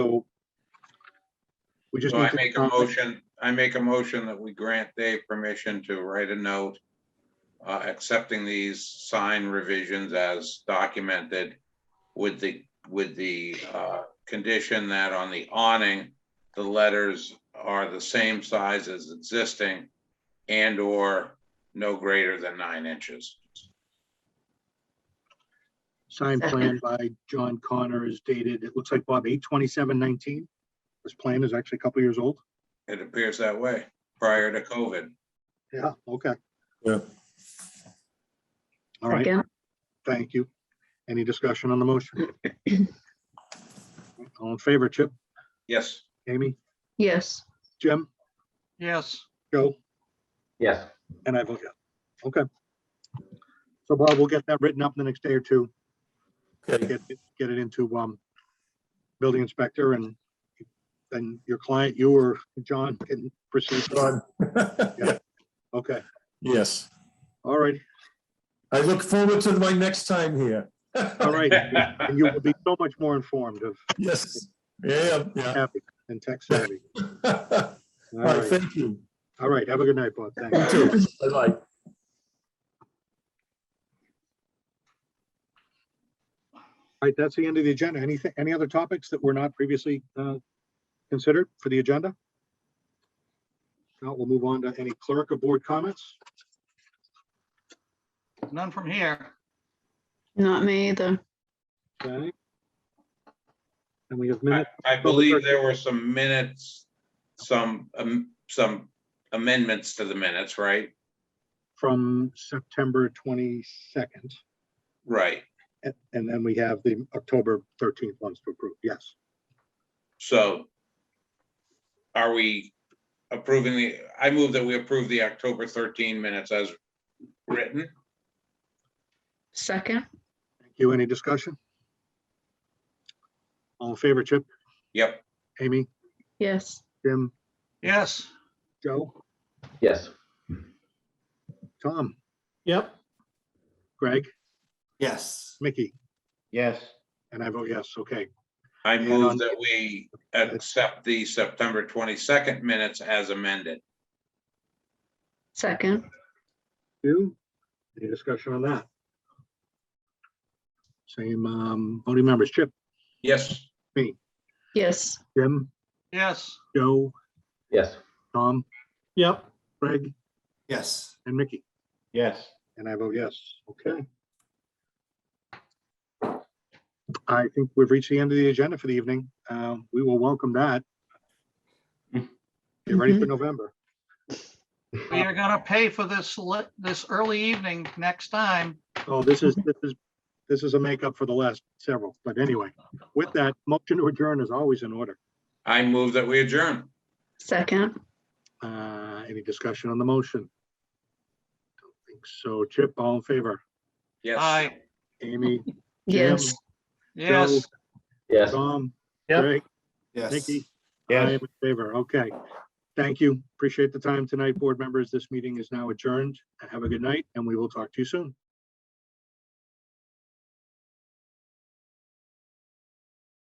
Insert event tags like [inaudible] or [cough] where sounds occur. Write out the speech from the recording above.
So we just So need I to. make a motion, I make a motion that we grant Dave permission to write a note uh, accepting these sign revisions as documented with the, with the uh, condition that on the awning, the letters are the same size as existing and/or no greater than nine inches. Signed plan by John Connor is dated, it looks like Bob, eight twenty-seven nineteen. This plan is actually a couple years old. It appears that way prior to COVID. Yeah. Okay. Yeah. All right, Second. thank you. Any discussion on the motion? All in favor, Chip, Yes. Amy, Yes, Jim, Yes. Joe? Yes, And I vote yes. Okay. So Bob, we'll get that written up in the next day or two, Okay, get, get it into, um, building inspector and then your client, you or John can proceed. John. Okay, [laughs] Yes, all right, I look forward to my next time here. all right. And you will be so much more informed of Yes, yeah, yeah. [laughs] happy and tech savvy. All All right, right, thank you. all right, have a good night, Bob. Thanks. You too. Bye-bye. All right, that's the end of the agenda. Anything, any other topics that were not previously uh, considered for the agenda? Now we'll move on to any clerk of board comments. None from here. not me either. Okay. And we have I minutes. I believe there were some minutes, some, um, some amendments to the minutes, right? from September 22nd. Right. And and then we have the October 13th ones to approve. Yes. So are we approving the, I move that we approve the October 13 minutes as written? Second, Thank you. Any discussion? All in favor, Chip, Yep. Amy, yes, Jim, Yes, Joe, yes, Tom, Yep. Greg, Yes. Mickey, yes, and I vote yes. Okay. I And on- move that we accept the September 22nd minutes as amended. second, Two. Any discussion on that? Same um, voting members, Chip, Yes. yes, Jim, yes, Joe, yes, Tom, Yep. Greg, Yes. and Mickey. yes. And I vote yes. Okay. I think we've reached the end of the agenda for the evening. Uh, We will welcome that. Get ready for November. we are gonna pay for this, li- this early evening next time. Oh, this is, this is, this is a makeup for the last several, but anyway, with that, motion to adjourn is always in order. I move that we adjourn. second, Uh, Any discussion on the motion? Don't think So Chip, all in favor? Yes. Aye, Amy, yes, yes, Yes. Tom, Yep. Greg, Yes. Nikki? I am in favor. Okay. Thank you. Appreciate the time tonight, board members. This meeting is now adjourned. Have a good night and we will talk to you soon.